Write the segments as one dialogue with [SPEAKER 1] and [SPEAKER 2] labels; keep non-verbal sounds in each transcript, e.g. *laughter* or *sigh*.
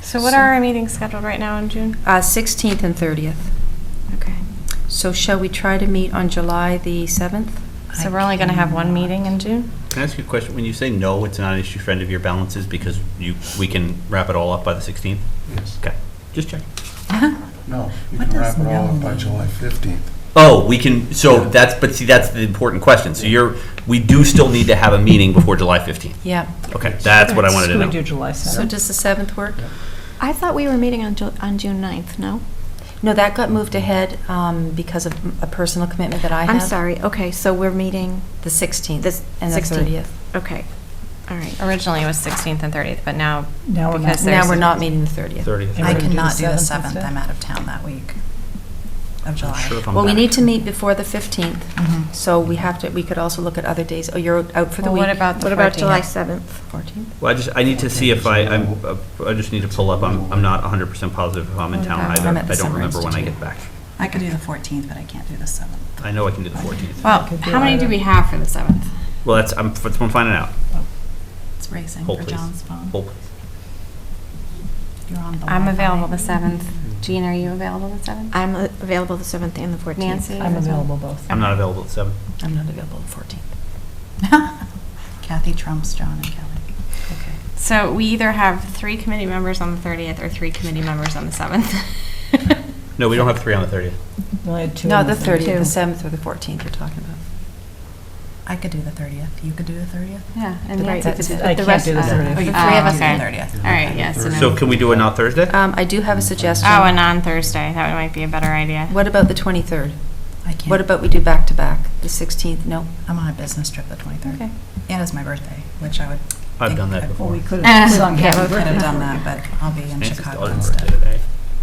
[SPEAKER 1] So what are our meetings scheduled right now in June?
[SPEAKER 2] Uh, 16th and 30th.
[SPEAKER 1] Okay.
[SPEAKER 2] So shall we try to meet on July the 7th?
[SPEAKER 1] So we're only going to have one meeting in June?
[SPEAKER 3] Can I ask you a question? When you say no, it's not an issue for end of year balances because you, we can wrap it all up by the 16th?
[SPEAKER 4] Yes.
[SPEAKER 3] Okay, just check.
[SPEAKER 4] No, you
[SPEAKER 5] What
[SPEAKER 4] can wrap
[SPEAKER 5] does
[SPEAKER 4] it all up
[SPEAKER 5] no
[SPEAKER 4] by
[SPEAKER 5] mean?
[SPEAKER 4] July 15th.
[SPEAKER 3] Oh, we can, so that's, but see, that's the important question. So you're, we do still need to have a meeting before July 15th.
[SPEAKER 2] Yeah.
[SPEAKER 3] Okay, that's what I wanted to
[SPEAKER 5] Should we
[SPEAKER 3] know.
[SPEAKER 5] do July 7th?
[SPEAKER 2] So does the 7th work?
[SPEAKER 6] I thought we were meeting on, Ju- on June 9th, no?
[SPEAKER 2] No, that got moved ahead um, because of a personal commitment that I have.
[SPEAKER 6] I'm sorry, okay, so we're meeting,
[SPEAKER 2] The 16th
[SPEAKER 6] This-
[SPEAKER 2] and the
[SPEAKER 6] 16th.
[SPEAKER 2] 30th.
[SPEAKER 6] okay, all right.
[SPEAKER 1] Originally it was 16th and 30th, but now,
[SPEAKER 5] Now we're not.
[SPEAKER 1] because there's...
[SPEAKER 2] Now, we're not meeting the 30th.
[SPEAKER 3] 30th.
[SPEAKER 5] And
[SPEAKER 7] I
[SPEAKER 5] we can do
[SPEAKER 7] cannot
[SPEAKER 5] the
[SPEAKER 7] do the
[SPEAKER 5] 7th
[SPEAKER 7] 7th,
[SPEAKER 5] instead?
[SPEAKER 7] I'm out of town that week of July.
[SPEAKER 2] Well, we need to meet before the 15th,
[SPEAKER 7] Mhm.
[SPEAKER 2] so we have to, we could also look at other days. Oh, you're out for the
[SPEAKER 1] Well,
[SPEAKER 2] week?
[SPEAKER 1] what about the
[SPEAKER 6] What about
[SPEAKER 1] 14th?
[SPEAKER 6] July 7th?
[SPEAKER 2] 14th?
[SPEAKER 3] Well, I just, I need to see if I, I'm, uh, I just need to pull up. I'm, I'm not 100% positive if I'm in town
[SPEAKER 2] Okay.
[SPEAKER 3] either.
[SPEAKER 2] I'm at the
[SPEAKER 3] I don't
[SPEAKER 2] Summer
[SPEAKER 3] remember when I
[SPEAKER 2] Institute.
[SPEAKER 3] get back.
[SPEAKER 7] I could do the 14th, but I can't do the 7th.
[SPEAKER 3] I know I can do the 14th.
[SPEAKER 1] Well,
[SPEAKER 5] Could be
[SPEAKER 1] how many
[SPEAKER 5] either.
[SPEAKER 1] do we have for the 7th?
[SPEAKER 3] Well, that's, I'm, that's what I'm finding out.
[SPEAKER 7] It's racing
[SPEAKER 3] Hold,
[SPEAKER 7] for
[SPEAKER 3] please.
[SPEAKER 7] John's phone.
[SPEAKER 3] Hold.
[SPEAKER 7] You're on the
[SPEAKER 1] I'm
[SPEAKER 7] Wi-Fi.
[SPEAKER 1] available the
[SPEAKER 7] *laughs*
[SPEAKER 1] 7th. Jean, are you available the 7th?
[SPEAKER 6] I'm uh, available the 7th and the 14th.
[SPEAKER 1] Nancy?
[SPEAKER 5] I'm available both.
[SPEAKER 3] I'm not available at 7.
[SPEAKER 2] I'm not available the 14th.
[SPEAKER 7] Kathy trumps John and Kelly.
[SPEAKER 2] Okay.
[SPEAKER 1] So we either have three committee members on the 30th or three committee members on the
[SPEAKER 3] *laughs*
[SPEAKER 1] 7th.
[SPEAKER 3] No, we don't have 3 on the 30th.
[SPEAKER 5] We only had two
[SPEAKER 2] No,
[SPEAKER 5] on
[SPEAKER 2] the 30th, the
[SPEAKER 6] Two.
[SPEAKER 2] 7th or the 14th you're talking about.
[SPEAKER 7] I could do the 30th, you could do the 30th?
[SPEAKER 1] *laughs* Yeah, and
[SPEAKER 2] Right,
[SPEAKER 1] Nancy could
[SPEAKER 2] that's-
[SPEAKER 1] do
[SPEAKER 5] I
[SPEAKER 1] that.
[SPEAKER 5] can't
[SPEAKER 1] rest
[SPEAKER 5] do the
[SPEAKER 1] of-
[SPEAKER 5] 30th.
[SPEAKER 1] Oh,
[SPEAKER 7] Oh,
[SPEAKER 1] you can
[SPEAKER 7] you can do
[SPEAKER 1] okay.
[SPEAKER 7] the 30th.
[SPEAKER 1] All right, yes. and
[SPEAKER 3] So
[SPEAKER 1] then-
[SPEAKER 3] can we do it not Thursday?
[SPEAKER 2] Um, I do have a suggestion.
[SPEAKER 1] Oh, and on Thursday, that might be a better idea.
[SPEAKER 2] What about the 23rd?
[SPEAKER 7] I can't.
[SPEAKER 2] What about we do back-to-back? The 16th, no?
[SPEAKER 7] I'm on a business trip the 23rd.
[SPEAKER 2] Okay.
[SPEAKER 7] And it's my birthday, which I would.
[SPEAKER 3] I've
[SPEAKER 7] think
[SPEAKER 3] done
[SPEAKER 7] I-
[SPEAKER 3] that before.
[SPEAKER 5] Well, we could
[SPEAKER 1] Uh,
[SPEAKER 5] have sung
[SPEAKER 1] yeah,
[SPEAKER 5] happy
[SPEAKER 1] we
[SPEAKER 7] I could have done
[SPEAKER 5] birthday.
[SPEAKER 7] that, but I'll be in
[SPEAKER 3] Nancy's
[SPEAKER 7] Chicago
[SPEAKER 3] daughter's birthday
[SPEAKER 7] instead.
[SPEAKER 3] today.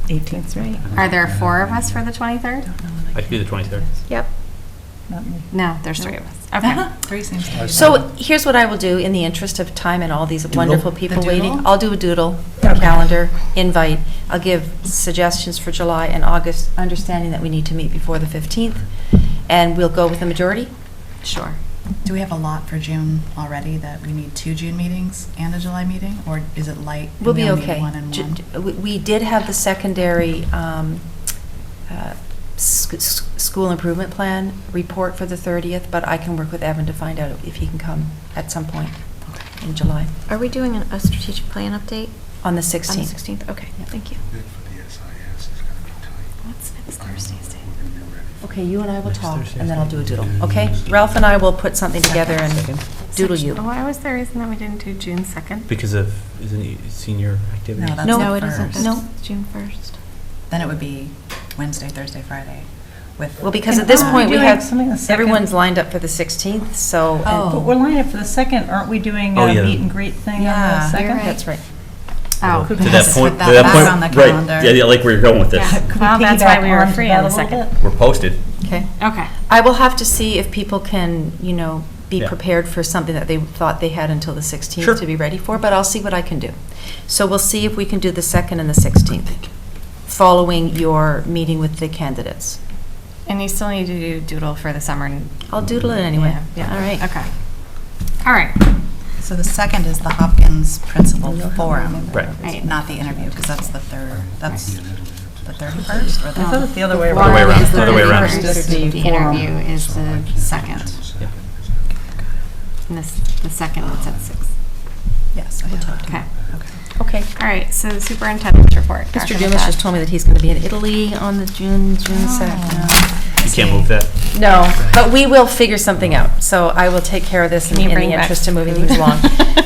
[SPEAKER 5] 18th, right?
[SPEAKER 1] Are there four of us for the 23rd?
[SPEAKER 7] Don't know when
[SPEAKER 3] I could do the 23rd.
[SPEAKER 6] Yep,
[SPEAKER 5] Not me.
[SPEAKER 1] No, there's three of us.
[SPEAKER 2] Uh-huh.
[SPEAKER 1] Okay.
[SPEAKER 7] *laughs* Three seems to be.
[SPEAKER 2] So here's what I will do, in the interest of time and all these wonderful people
[SPEAKER 7] The
[SPEAKER 2] waiting.
[SPEAKER 7] doodle?
[SPEAKER 2] I'll do a doodle,
[SPEAKER 5] Okay.
[SPEAKER 2] calendar, invite. I'll give suggestions for July and August, understanding that we need to meet before the 15th. And we'll go with the majority? Sure.
[SPEAKER 7] Do we have a lot for June already that we need two June meetings and a July meeting, or is it light? and
[SPEAKER 2] We'll
[SPEAKER 7] we
[SPEAKER 2] be
[SPEAKER 7] only need
[SPEAKER 2] okay.
[SPEAKER 7] one and
[SPEAKER 2] Ju-
[SPEAKER 7] one?
[SPEAKER 2] d- we- We did have the secondary um, uh, sc- s- school improvement plan report for the 30th, but I can work with Evan to find out if he can come at some point in July,
[SPEAKER 6] are we doing an- a strategic plan update?
[SPEAKER 2] on the
[SPEAKER 6] On the
[SPEAKER 2] 16th.
[SPEAKER 6] 16th, okay,
[SPEAKER 2] Yeah.
[SPEAKER 6] thank you.
[SPEAKER 4] Bid for the SIS is going to be tight.
[SPEAKER 1] What's next
[SPEAKER 4] I don't know
[SPEAKER 1] Thursday's
[SPEAKER 4] if
[SPEAKER 1] date?
[SPEAKER 4] we're gonna be ready for
[SPEAKER 2] Okay, you and I will
[SPEAKER 3] Next
[SPEAKER 2] talk,
[SPEAKER 3] Thursday.
[SPEAKER 2] and then I'll do a doodle, okay? Ralph and I will put something together and *laughs* doodle you.
[SPEAKER 1] Why was the reason that we didn't do June 2nd?
[SPEAKER 3] Because of, isn't it senior activity?
[SPEAKER 7] No, that's
[SPEAKER 2] No,
[SPEAKER 7] the
[SPEAKER 6] No, it isn't,
[SPEAKER 7] first.
[SPEAKER 2] No.
[SPEAKER 6] that's June 1st.
[SPEAKER 7] Then it would be Wednesday, Thursday, Friday with.
[SPEAKER 2] Well, because at this
[SPEAKER 5] Aren't we
[SPEAKER 2] point, we
[SPEAKER 5] doing
[SPEAKER 2] have,
[SPEAKER 5] something the second?
[SPEAKER 2] everyone's lined up for the 16th, so. and-
[SPEAKER 7] Oh.
[SPEAKER 5] But we're lining up for the 2nd, aren't we doing
[SPEAKER 3] Oh,
[SPEAKER 5] a
[SPEAKER 3] yeah.
[SPEAKER 5] meet and greet thing on
[SPEAKER 7] Yeah,
[SPEAKER 5] the
[SPEAKER 7] you're
[SPEAKER 5] 2nd?
[SPEAKER 6] right.
[SPEAKER 2] That's right.
[SPEAKER 1] Oh.
[SPEAKER 3] To
[SPEAKER 7] Yes,
[SPEAKER 3] that
[SPEAKER 7] put
[SPEAKER 3] point, to
[SPEAKER 7] that
[SPEAKER 3] that
[SPEAKER 7] back
[SPEAKER 3] point.
[SPEAKER 7] on the
[SPEAKER 3] right,
[SPEAKER 7] calendar.
[SPEAKER 3] Yeah, yeah, like where you're going with this.
[SPEAKER 1] Yeah. Well, that's why we were free on the second.
[SPEAKER 3] We're posted.
[SPEAKER 2] Okay.
[SPEAKER 1] Okay.
[SPEAKER 2] I will have to see if people can, you know, be
[SPEAKER 3] Yeah.
[SPEAKER 2] prepared for something that they thought they had until the
[SPEAKER 3] Sure.
[SPEAKER 2] 16th to be ready for, but I'll see what I can do. So we'll see if we can do the 2nd and the 16th, following your meeting with the candidates.
[SPEAKER 1] And you still need to do doodle for the summer. and-
[SPEAKER 2] I'll doodle it anyway.
[SPEAKER 1] Yeah.
[SPEAKER 2] All right.
[SPEAKER 1] Okay. All right.
[SPEAKER 7] So the second is the Hopkins Principal Forum.
[SPEAKER 3] Right.
[SPEAKER 1] Right.
[SPEAKER 7] Not the interview, because that's the third, that's
[SPEAKER 4] it.
[SPEAKER 7] the 31st or
[SPEAKER 5] I thought
[SPEAKER 7] the.
[SPEAKER 5] it's the other way
[SPEAKER 1] The
[SPEAKER 5] around.
[SPEAKER 3] way
[SPEAKER 1] forum
[SPEAKER 3] around,
[SPEAKER 1] is
[SPEAKER 3] other way around.
[SPEAKER 1] 31st,
[SPEAKER 5] Just the
[SPEAKER 1] The
[SPEAKER 5] forum.
[SPEAKER 1] interview is
[SPEAKER 4] So I can't do
[SPEAKER 1] the
[SPEAKER 4] the
[SPEAKER 1] second.
[SPEAKER 4] second.
[SPEAKER 1] And this, the second one's at six.
[SPEAKER 7] Yes, I have.
[SPEAKER 1] Okay.
[SPEAKER 7] Okay.
[SPEAKER 2] Okay.
[SPEAKER 1] All right, so the superintendent's report. Dr.
[SPEAKER 2] Mr. Dumas
[SPEAKER 1] Mathad.
[SPEAKER 2] just told me that Oh. he's going to be in Italy on the June, June 2nd.
[SPEAKER 3] You can't move that.
[SPEAKER 2] No, but we will figure something out. So I will take care of this
[SPEAKER 1] Can
[SPEAKER 2] in
[SPEAKER 1] you
[SPEAKER 2] in the
[SPEAKER 1] bring back
[SPEAKER 2] interest of moving
[SPEAKER 1] food?
[SPEAKER 2] things *laughs* along.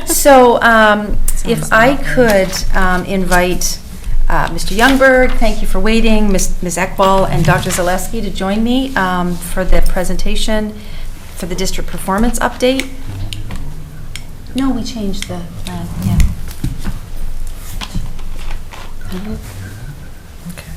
[SPEAKER 2] So um, if
[SPEAKER 7] Sounds
[SPEAKER 2] I
[SPEAKER 7] lovely.
[SPEAKER 2] could um, invite uh, Mr. Youngberg, thank you for waiting, Ms. Ms. Ekbal, and Dr. Zaleski to join me um, for the presentation for the district performance update. No, we changed the, uh, yeah.
[SPEAKER 7] Okay.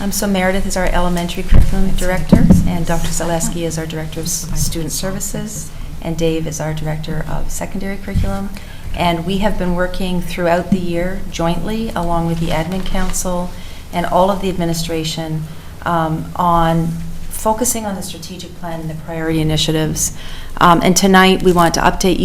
[SPEAKER 2] Um, So Meredith is our elementary curriculum director, and Dr. Zaleski is our director of s- student services, and Dave is our director of secondary curriculum. And we have been working throughout the year jointly, along with the admin council and all of the administration, um, on focusing on the strategic plan and the priority initiatives. Um, And tonight, we want to update you.